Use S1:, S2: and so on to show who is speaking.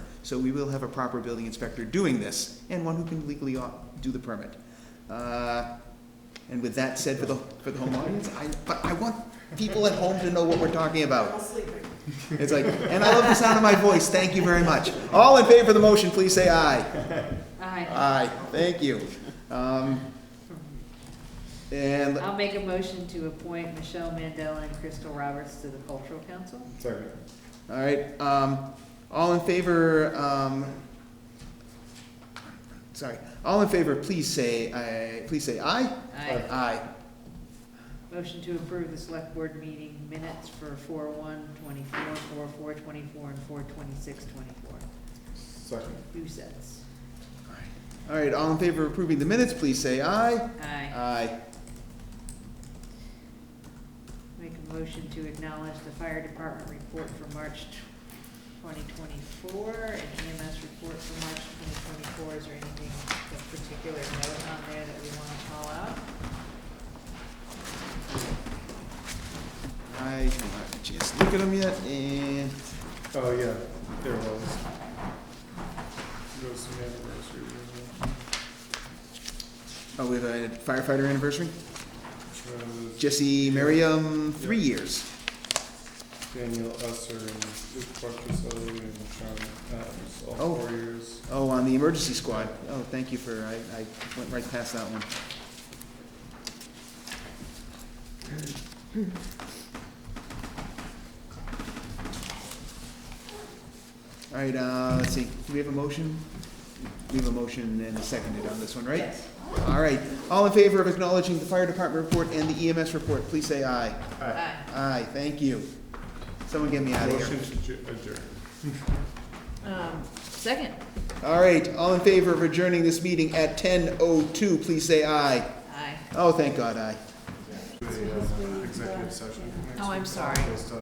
S1: So we will have a proper building inspector doing this, and one who can legally au- do the permit. Uh, And with that said, for the, for the home audience, I, but I want people at home to know what we're talking about. It's like, and I love the sound of my voice, thank you very much. All in favor of the motion, please say aye.
S2: Aye.
S1: Aye, thank you. Um, And
S2: I'll make a motion to appoint Michelle Mandela and Crystal Roberts to the Cultural Council.
S3: Second.
S1: All right, um, all in favor, um, sorry, all in favor, please say, aye. please say aye.
S2: Aye.
S1: Aye.
S2: Motion to approve the select board meeting minutes for four one twenty-four, four four twenty-four, and four twenty-six twenty-four.
S3: Second.
S2: Two sets.
S1: All right, all in favor of approving the minutes, please say aye.
S2: Aye.
S1: Aye.
S2: Make a motion to acknowledge the fire department report for March twenty twenty-four and EMS report for March twenty twenty-four. Is there anything of particular note on there that we want to call out?
S1: I haven't had a chance to look at them yet, and,
S3: Oh, yeah, there was. There was some anniversary.
S1: oh, we have a firefighter anniversary,
S3: wasn't there? Uh,
S1: Jesse Merriam, three years.
S3: Daniel Usser and Luke Parkinselli and Sean Adams, all
S1: Oh.
S3: four years.
S1: Oh, on the emergency squad, oh, thank you for, I, I went right past that one. All right, uh, let's see, do we have a motion? We have a motion and a seconded on this one, right?
S2: Yes.
S1: All right, all in favor of acknowledging the fire department report and the EMS report, please say aye.
S3: Aye.
S2: Aye.
S1: Aye, thank you. Someone get me out of here.
S3: Motion to adj- adjourn.
S2: Um, second.
S1: All right, all in favor of adjourning this meeting at ten oh two, please say aye.
S2: Aye.
S1: Oh, thank God, aye.
S3: To the, uh, Executive session. next
S2: Oh, I'm
S3: week.
S2: sorry.
S3: Based on-